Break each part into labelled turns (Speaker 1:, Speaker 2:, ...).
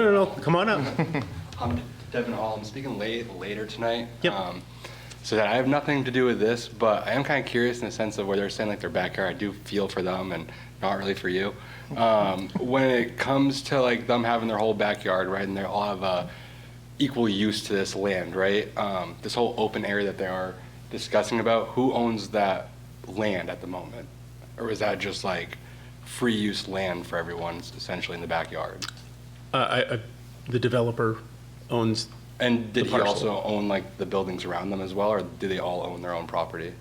Speaker 1: No, no, no, come on up. Uh,
Speaker 2: I'm Devin Hall. I'm speaking late, later tonight.
Speaker 1: Yep.
Speaker 2: Um, So that I have nothing to do with this, but I am kind of curious in the sense of where they're saying like their backyard. I do feel for them and not really for you. Um, When it comes to like them having their whole backyard, right, and they all have uh, equal use to this land, right? Um, This whole open area that they are discussing about, who owns that land at the moment? Or is that just like free use land for everyone essentially in the backyard?
Speaker 1: Uh, I, I, the developer owns,
Speaker 2: And did
Speaker 1: The
Speaker 2: he
Speaker 1: parcel.
Speaker 2: also own like the buildings around them as well, or do they all own their own property?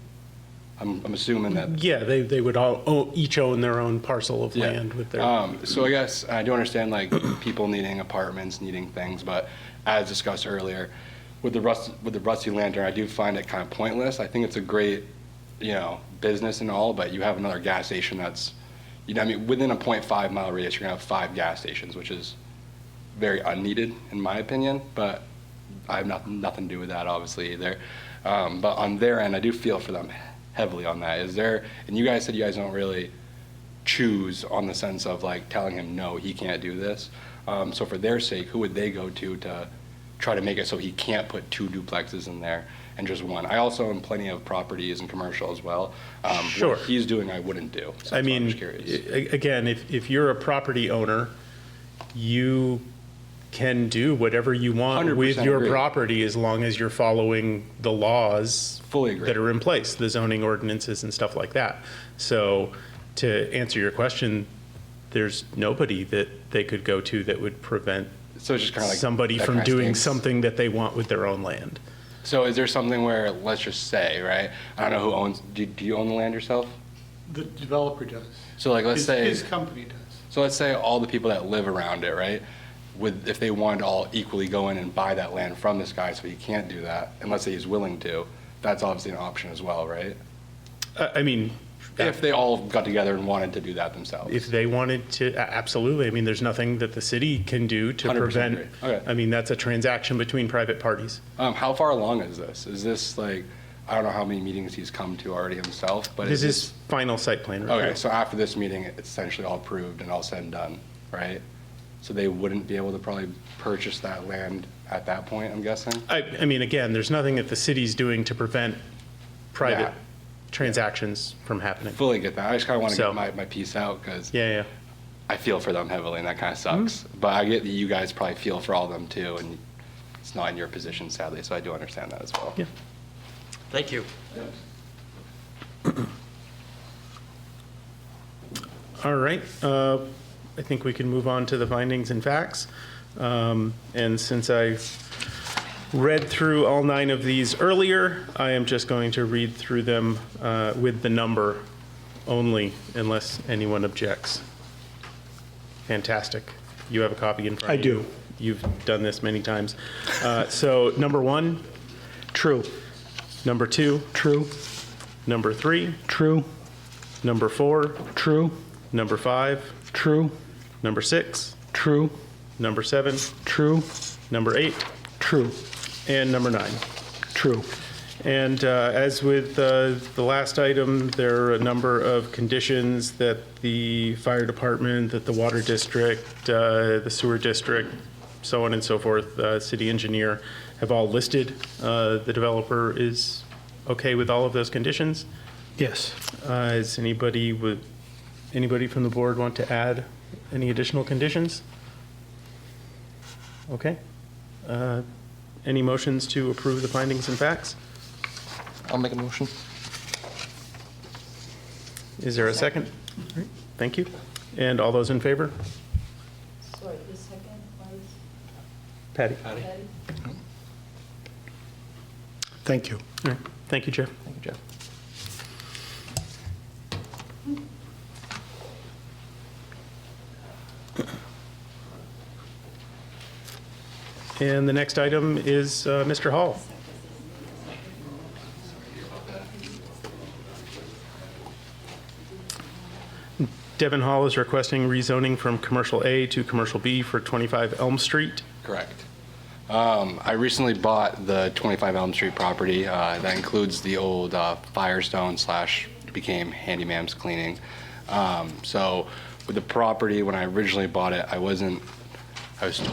Speaker 2: I'm, I'm assuming that.
Speaker 1: yeah, they, they would all, own- each own their own parcel of
Speaker 2: Yeah.
Speaker 1: land with their,
Speaker 2: Um, so I guess I do understand like people needing apartments, needing things, but as discussed earlier, with the rust with the rusty lantern, I do find it kind of pointless. I think it's a great, you know, business and all, but you have another gas station that's, you know, I mean, within a 0.5 mile radius, you're gonna have five gas stations, which is very unneeded in my opinion. But I have nothing nothing to do with that obviously either. Um, but on their end, I do feel for them heavily on that. Is there? And you guys said you guys don't really choose on the sense of like telling him no, he can't do this. Um, so for their sake, who would they go to to try to make it so he can't put two duplexes in there and just one? I also own plenty of properties and commercial as well. Um,
Speaker 1: Sure.
Speaker 2: What he's doing, I wouldn't do. So
Speaker 1: I
Speaker 2: that's why I'm
Speaker 1: mean,
Speaker 2: just curious.
Speaker 1: a- again, if, if you're a property owner, you can do whatever you want
Speaker 2: 100%
Speaker 1: with your
Speaker 2: agree.
Speaker 1: property as long as you're following the laws
Speaker 2: Fully agree.
Speaker 1: that are in place, the zoning ordinances and stuff like that. So to answer your question, there's nobody that they could go to that would prevent
Speaker 2: So it's just kind of like
Speaker 1: somebody
Speaker 2: that
Speaker 1: from
Speaker 2: kinda
Speaker 1: doing
Speaker 2: stinks.
Speaker 1: something that they want with their own land.
Speaker 2: So is there something where let's just say, right? I don't know who owns. Do, do you own the land yourself?
Speaker 3: The developer does.
Speaker 2: So like let's
Speaker 3: His-
Speaker 2: say
Speaker 3: His company does.
Speaker 2: So let's say all the people that live around it, right? Would, if they wanted to all equally go in and buy that land from this guy, so he can't do that, and let's say he's willing to, that's obviously an option as well, right?
Speaker 1: Uh, I, I mean,
Speaker 2: If they all got together and wanted to do that themselves.
Speaker 1: if they wanted to, a- absolutely. I mean, there's nothing that the city can do to
Speaker 2: 100%
Speaker 1: prevent.
Speaker 2: agree. Okay.
Speaker 1: I mean, that's a transaction between private parties.
Speaker 2: Um, how far along is this? Is this like, I don't know how many meetings he's come to already himself, but
Speaker 1: This
Speaker 2: is
Speaker 1: is final site plan review.
Speaker 2: Okay, so after this meeting, it's essentially all approved and all said and done, right? So they wouldn't be able to probably purchase that land at that point, I'm guessing?
Speaker 1: I, I mean, again, there's nothing that the city's doing to prevent private
Speaker 2: Yeah.
Speaker 1: transactions from happening.
Speaker 2: Fully get that. I just kind of want to
Speaker 1: So-
Speaker 2: get my, my piece out, because
Speaker 1: Yeah, yeah.
Speaker 2: I feel for them heavily, and that kind of sucks. But I get that you guys probably feel for all of them too, and it's not in your position, sadly. So I do understand that as well.
Speaker 1: Yeah.
Speaker 4: Thank you.
Speaker 1: All right, uh, I think we can move on to the findings and facts. Um, And since I read through all nine of these earlier, I am just going to read through them uh, with the number only, unless anyone objects. Fantastic. You have a copy in front
Speaker 3: I
Speaker 1: of you.
Speaker 3: do.
Speaker 1: You've done this many times. Uh, So number one,
Speaker 3: True,
Speaker 1: number two,
Speaker 3: true,
Speaker 1: number three,
Speaker 3: true,
Speaker 1: number four,
Speaker 3: true,
Speaker 1: number five,
Speaker 3: true,
Speaker 1: number six,
Speaker 3: true,
Speaker 1: number seven,
Speaker 3: true,
Speaker 1: number eight,
Speaker 3: true,
Speaker 1: and number nine.
Speaker 3: true.
Speaker 1: And uh, as with uh, the last item, there are a number of conditions that the fire department, that the water district, uh, the sewer district, so on and so forth, uh, city engineer, have all listed. Uh, The developer is okay with all of those conditions.
Speaker 3: Yes.
Speaker 1: Uh, Is anybody with, anybody from the board want to add any additional conditions? Okay. Uh, Any motions to approve the findings and facts?
Speaker 5: I'll make a motion.
Speaker 1: Is there a second? All right, Thank you. And all those in favor?
Speaker 6: Sorry, the second was
Speaker 1: Patty?
Speaker 6: Patty?
Speaker 3: Thank you.
Speaker 1: All right, Thank you, Jeff.
Speaker 5: Thank you, Jeff.
Speaker 1: And the next item is uh, Mr. Hall. Devin Hall is requesting rezoning from Commercial A to Commercial B for 25 Elm Street.
Speaker 2: Correct. Um, I recently bought the 25 Elm Street property. Uh, that includes the old uh, Firestone slash became Handyman's Cleaning. Um, so with the property, when I originally bought it, I wasn't, I was